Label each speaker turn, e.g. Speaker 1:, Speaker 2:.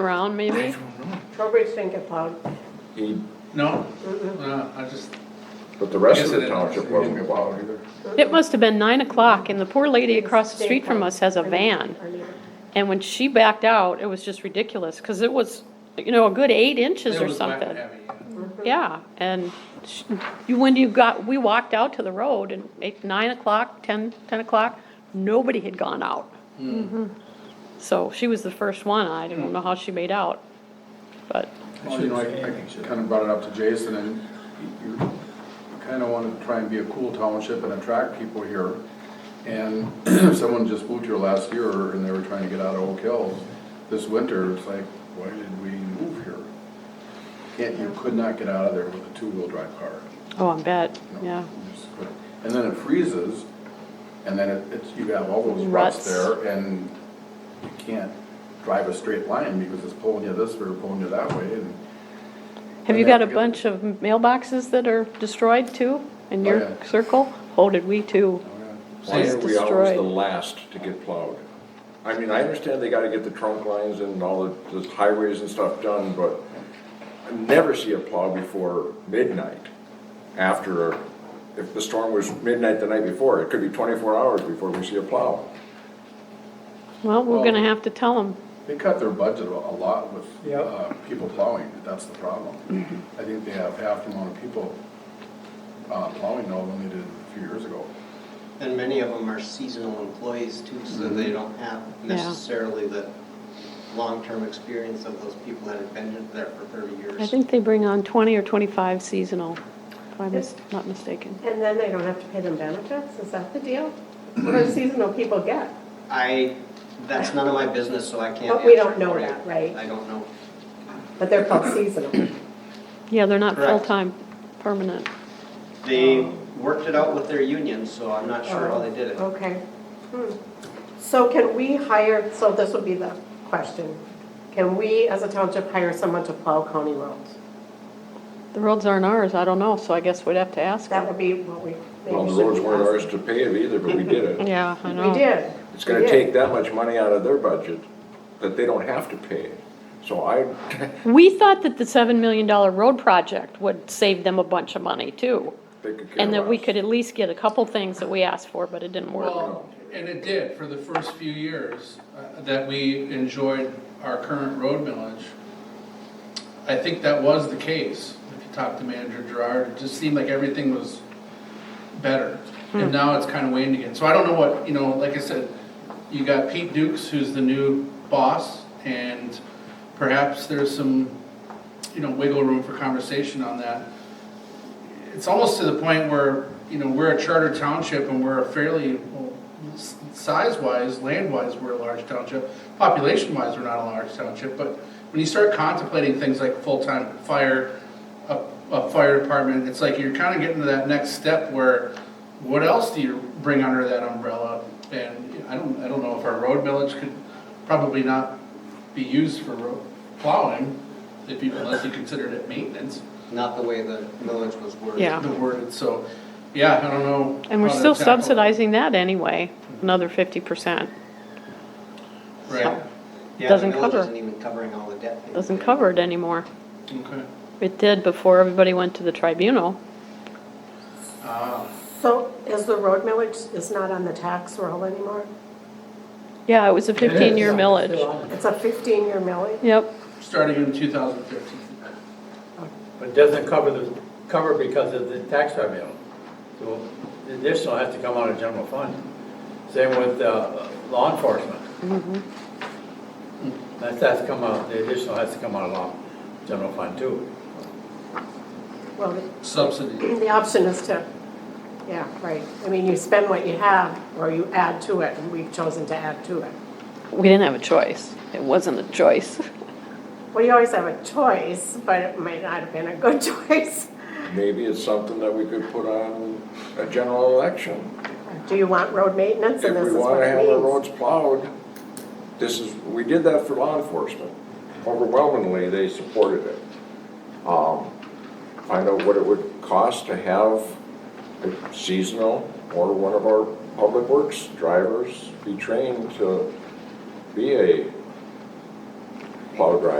Speaker 1: around, maybe?
Speaker 2: Trowbridge didn't get plowed.
Speaker 3: He-
Speaker 4: No,
Speaker 2: Mm-mm.
Speaker 4: no, I just,
Speaker 3: But the rest
Speaker 4: Yes,
Speaker 3: of
Speaker 4: it
Speaker 3: the
Speaker 4: is.
Speaker 3: township wasn't allowed either.
Speaker 1: It must have been nine o'clock, and the poor lady across the street from us has a
Speaker 2: Our
Speaker 1: van.
Speaker 2: neighbor- our neighbor.
Speaker 1: And when she backed out, it was just ridiculous, because it was, you know, a good eight inches
Speaker 4: it
Speaker 1: or
Speaker 4: was wet and
Speaker 1: something.
Speaker 4: heavy, yeah.
Speaker 1: Yeah, and sh- you, when you got, we walked out to the road and eight, nine o'clock, ten, ten o'clock, nobody had gone out.
Speaker 4: Mm-hmm.
Speaker 1: So she was the first one, I don't know how she made out, but,
Speaker 5: Well, you know, I, I kind of brought it up to Jason, and you you kind of want to try and be a cool township and attract people here. And if someone just moved here last year and they were trying to get out of Oak Hills this winter, it's like, why did we move here? Can't, you could not get out of there with a two-wheel drive car.
Speaker 1: oh, I bet,
Speaker 5: you know,
Speaker 1: yeah.
Speaker 5: you just couldn't. And then it freezes, and then it- it's, you have all those ruts
Speaker 1: Ruts.
Speaker 5: there, and you can't drive a straight line because it's pulling you this way or pulling you that way, and
Speaker 1: Have you
Speaker 5: Yeah,
Speaker 1: got a
Speaker 5: good.
Speaker 1: bunch of mailboxes that are destroyed too, in
Speaker 5: Oh,
Speaker 1: your
Speaker 5: yeah.
Speaker 1: circle? Oh, did we too?
Speaker 3: Why
Speaker 1: It's
Speaker 3: are we always
Speaker 1: destroyed.
Speaker 3: the last to get plowed? I mean, I understand they gotta get the trunk lines and all the, the highways and stuff done, but I never see a plow before midnight. After, a- if the storm was midnight the night before, it could be twenty-four hours before we see a plow.
Speaker 1: Well, we're
Speaker 5: Well-
Speaker 1: gonna have to tell them.
Speaker 5: They cut their budget a lot with
Speaker 6: Yep.
Speaker 5: uh, people plowing, that's the problem. I think they have half the amount of people uh, plowing now than they did a few years ago.
Speaker 7: And many of them are seasonal employees too, so they don't have necessarily the long-term experience of those people that have been there for thirty years.
Speaker 1: I think they bring on twenty or twenty-five seasonal, if I'm mis- not mistaken.
Speaker 2: And then they don't have to pay them benefits, is that the deal? What do seasonal people get?
Speaker 7: I, that's none of my business, so I can't answer
Speaker 2: But we don't know
Speaker 7: for you.
Speaker 2: that, right?
Speaker 7: I don't know.
Speaker 2: But they're called seasonal.
Speaker 1: Yeah, they're not
Speaker 7: Correct.
Speaker 1: full-time, permanent.
Speaker 7: They
Speaker 1: Oh.
Speaker 7: worked it out with their union, so I'm not sure how they did it.
Speaker 2: Okay. Hmm. So can we hire, so this would be the question. Can we, as a township, hire someone to plow county roads?
Speaker 1: The roads aren't ours, I don't know, so I guess we'd have to ask
Speaker 2: That
Speaker 1: them.
Speaker 2: would be what we
Speaker 3: Well,
Speaker 2: maybe
Speaker 3: the roads
Speaker 2: should be
Speaker 3: weren't ours
Speaker 2: asking.
Speaker 3: to pay it either, but we did it.
Speaker 1: Yeah, I know.
Speaker 2: We did.
Speaker 3: It's
Speaker 2: We
Speaker 3: gonna
Speaker 2: did.
Speaker 3: take that much money out of their budget that they don't have to pay. So I,
Speaker 1: We thought that the seven million dollar road project would save them a bunch of money too.
Speaker 3: they could care
Speaker 1: And that we
Speaker 3: less.
Speaker 1: could at least get a couple things that we asked for, but it didn't work.
Speaker 3: know.
Speaker 4: Well, and it did for the first few years uh, that we enjoyed our current road millage. I think that was the case. If you talk to manager Gerard, it just seemed like everything was better. And now it's kind of waned again. So I don't know what, you know, like I said, you got Pete Dukes, who's the new boss, and perhaps there's some, you know, wiggle room for conversation on that it's almost to the point where, you know, we're a charter township and we're a fairly, well, s- size-wise, land-wise, we're a large township. Population-wise, we're not a large township, but when you start contemplating things like full-time fire, a, a fire department, it's like you're kind of getting to that next step where what else do you bring under that umbrella? And I don't, I don't know if our road millage could probably not be used for ro- plowing, if you, unless you considered it maintenance
Speaker 7: Not the way the millage was worded.
Speaker 1: Yeah.
Speaker 4: the word, so, yeah, I don't know.
Speaker 1: And we're
Speaker 4: how to
Speaker 1: still
Speaker 4: tackle it.
Speaker 1: subsidizing that anyway, another fifty percent.
Speaker 4: Right,
Speaker 7: Yeah,
Speaker 1: Doesn't
Speaker 7: the millage
Speaker 1: cover.
Speaker 7: isn't even covering all the debt.
Speaker 1: Doesn't cover it anymore.
Speaker 4: okay.
Speaker 1: It did before everybody went to the tribunal.
Speaker 4: Ah,
Speaker 2: So is the road millage is not on the tax roll anymore?
Speaker 1: Yeah, it was a fifteen-year millage.
Speaker 2: It's a 15-year millage?
Speaker 1: Yep,
Speaker 4: starting in two thousand fifteen.
Speaker 6: But doesn't cover the, cover because of the tax revenue. So the additional has to come out of general fund. Same with uh, law enforcement. That has to come out, the additional has to come out of law, general fund too.
Speaker 2: Well, the-
Speaker 4: Subsidy,
Speaker 2: The option is to, yeah, right. I mean, you spend what you have, or you add to it, and we've chosen to add to it.
Speaker 1: we didn't have a choice. It wasn't a choice.
Speaker 2: Well, you always have a choice, but it might not have been a good choice.
Speaker 3: Maybe it's something that we could put on a general election.
Speaker 2: Do you want road maintenance,
Speaker 3: If
Speaker 2: and this
Speaker 3: we
Speaker 2: is what
Speaker 3: wanna
Speaker 2: it
Speaker 3: have our
Speaker 2: means?
Speaker 3: roads plowed, this is, we did that for law enforcement. Overwhelmingly, they supported it. Um, Find out what it would cost to have a seasonal or one of our public works drivers be trained to be a plow driver.